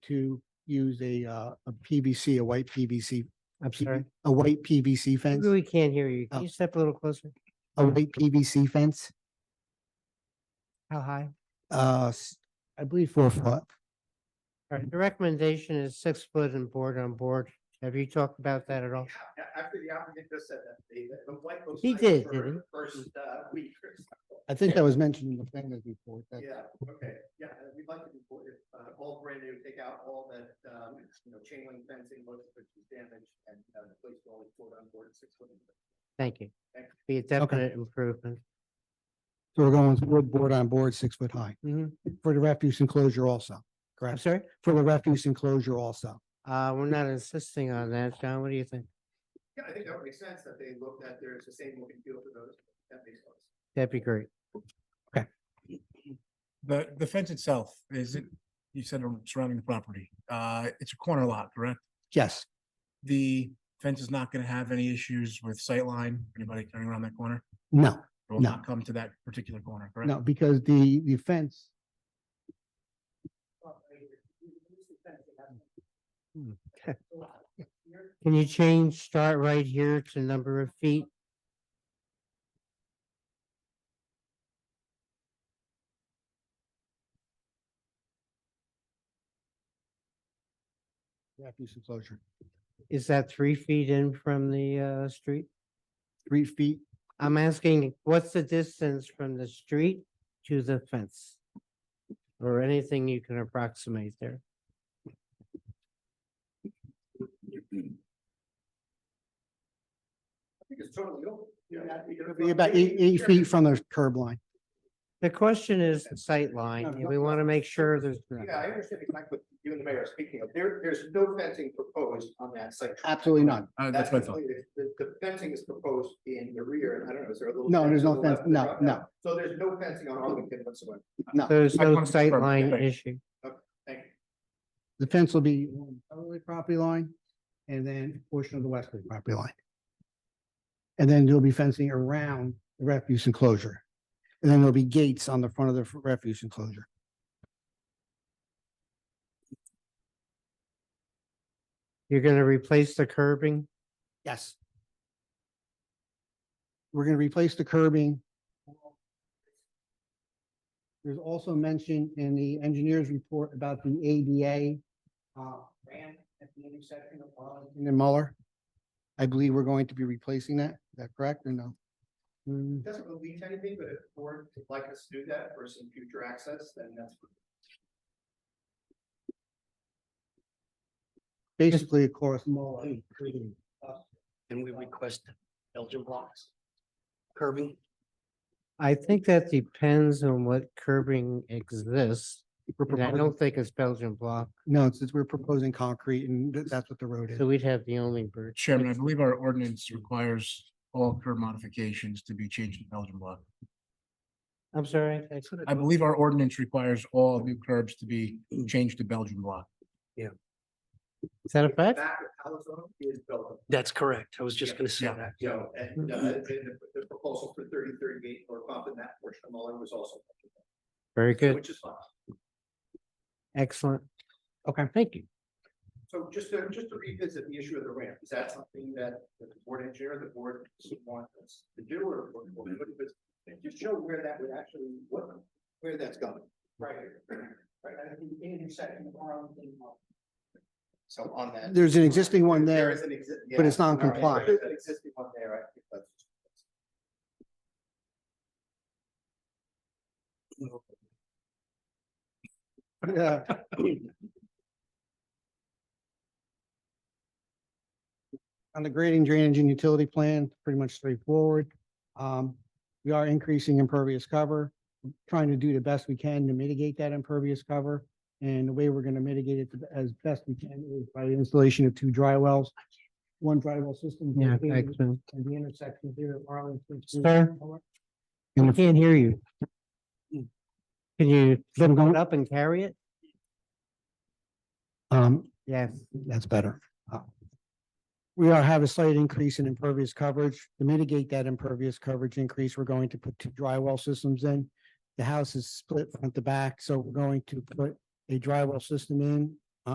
to use a, uh, a PVC, a white PVC, I'm sorry, a white PVC we fence, really can't hear you. Oh. Can you step a little closer? a white PVC fence, How high? uh, s- I believe four Uh-huh. foot. All right, the recommendation is six foot and board on board. Have you talked about that at all? A- After the applicant just said that, they, the white looks. He nice did, for didn't he? the First, uh, week or so. I think that was mentioned in the planners report. that- Yeah, okay, yeah, and we'd like to report it, uh, all brand new, take out all that, um, you know, chain link fencing, most of which is damaged, and, uh, the place will only board on board six foot. Thank you. Thank you. Be a definite improvement. So we're going with wood board on board, six foot high, Mhm. for the refuse enclosure also, I'm correct? sorry, For the refuse enclosure also. uh, we're not insisting on that. John, what do you think? Yeah, I think that would make sense that they look, that there's the same look and feel for those, that makes sense. That'd be great. The, the fence itself, is Mm-hmm. it, you said on surrounding the property, uh, it's a corner lot, correct? Yes, The fence is not gonna have any issues with sightline, anybody turning around that corner? no, It will No. not come to that particular corner, correct? no, because the, the fence, Can you change, start right here to number of feet? refuse enclosure, Is that three feet in from the, uh, street? three feet, I'm asking, what's the distance from the street to the fence? Or anything you can approximate there? I think it's totally open. You're not- you're It'll be about eight, eight feet from the curb line. The question is sightline, and we want to make sure there's. Yeah, I understand exactly what you and the mayor are speaking of. There, there's no fencing proposed on that site. Absolutely none. Uh, that's my thought. completely- The, the fencing is proposed in the rear, and I don't know, is there a little? No, there's to no the left fence. there? No, no. So there's no fencing on Arlington whatsoever. There's I no wanted to confirm. sightline Right. issue. Thank you. The fence will be on the southerly property line and then a portion of the westerly property line. And then there'll be fencing around the refuse enclosure. And then there'll be gates on the front of the f- refuse enclosure. You're going to replace the curbing? Yes. We're going to replace the curbing. There's also mention in the engineer's report about the ADA. uh, ramp at the intersection of Arlington And Muller. I believe we're going to be replacing that. Is that correct or no? Hmm, It doesn't really lead to anything, but if the board would like us to do that for some future access, then that's. Basically, of course, Muller. And we request Belgian blocks. Curbing, I think that depends on what curbing exists. We're and I proposing- don't think it's Belgian block, No, it's, it's- we're proposing concrete and th- that's what the road is. so we'd have the only bird. Chairman, I believe our ordinance requires all curb modifications to be changed to Belgian block. I'm sorry. I- I believe our ordinance requires all new curbs to be Mm. changed to Belgian block. Is that a fact? Back of Palazzo is built. that's correct. I was just gonna say Yeah. that. Yeah. So, and, uh, and the, the proposal for thirty thirty gate or bump in that portion of Muller was also. Very good, Which is fine. excellent. Okay, thank you. So just to, just to revisit the issue of the ramp, is that something that the board engineer, the board wants us to do or? or- or what if it's- Just show where that would actually, what, where that's going. Right. Right, I think the intersection around. So on that. There's an existing one there, is an exi- but it's yeah, all right, non-compliant. There's an existing one there, I think that's. Yeah. On the grading, drainage and utility plan, pretty much straightforward. Um, we are increasing impervious cover, trying to do the best we can to mitigate that impervious cover. And the way we're going to mitigate it the- as best we can is by the installation of two dry wells. One dry well system. Yeah, located excellent. at the intersection here at Arlington. Sir? I can't hear you. Can you lift it up and carry it? Um, Yes. That's better. Uh, We are, have a slight increase in impervious coverage. To mitigate that impervious coverage increase, we're going to put two drywall systems in. The house is split front to back, so we're going to put a drywall system in